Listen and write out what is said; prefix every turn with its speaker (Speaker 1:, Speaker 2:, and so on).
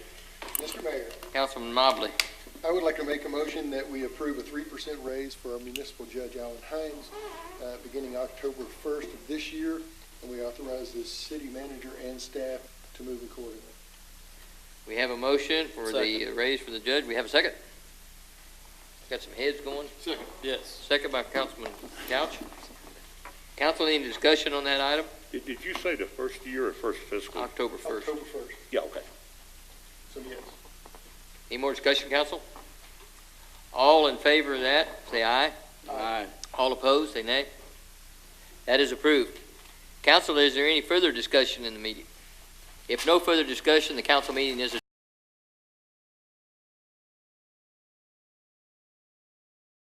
Speaker 1: Mr. Mayor,
Speaker 2: Councilman Mobley.
Speaker 1: I would like to make a motion that we approve a three percent raise for our municipal judge, Alan Hines, uh, beginning October first of this year, and we authorize the city manager and staff to move accordingly.
Speaker 2: We have a motion for the
Speaker 3: Second.
Speaker 2: raise for the judge. We have a second. Got some heads going.
Speaker 3: Second. Yes.
Speaker 2: Second by Councilman Couch. Council, any discussion on that item?
Speaker 4: Did, did you say the first year or first fiscal?
Speaker 2: October 1st.
Speaker 1: October first,
Speaker 4: Yeah, okay.
Speaker 1: so yes.
Speaker 2: Any more discussion, council? All in favor of that, say aye.
Speaker 3: Aye.
Speaker 2: All opposed, say nay. That is approved. Council, is there any further discussion in the meeting? If no further discussion, the council meeting is adjourned.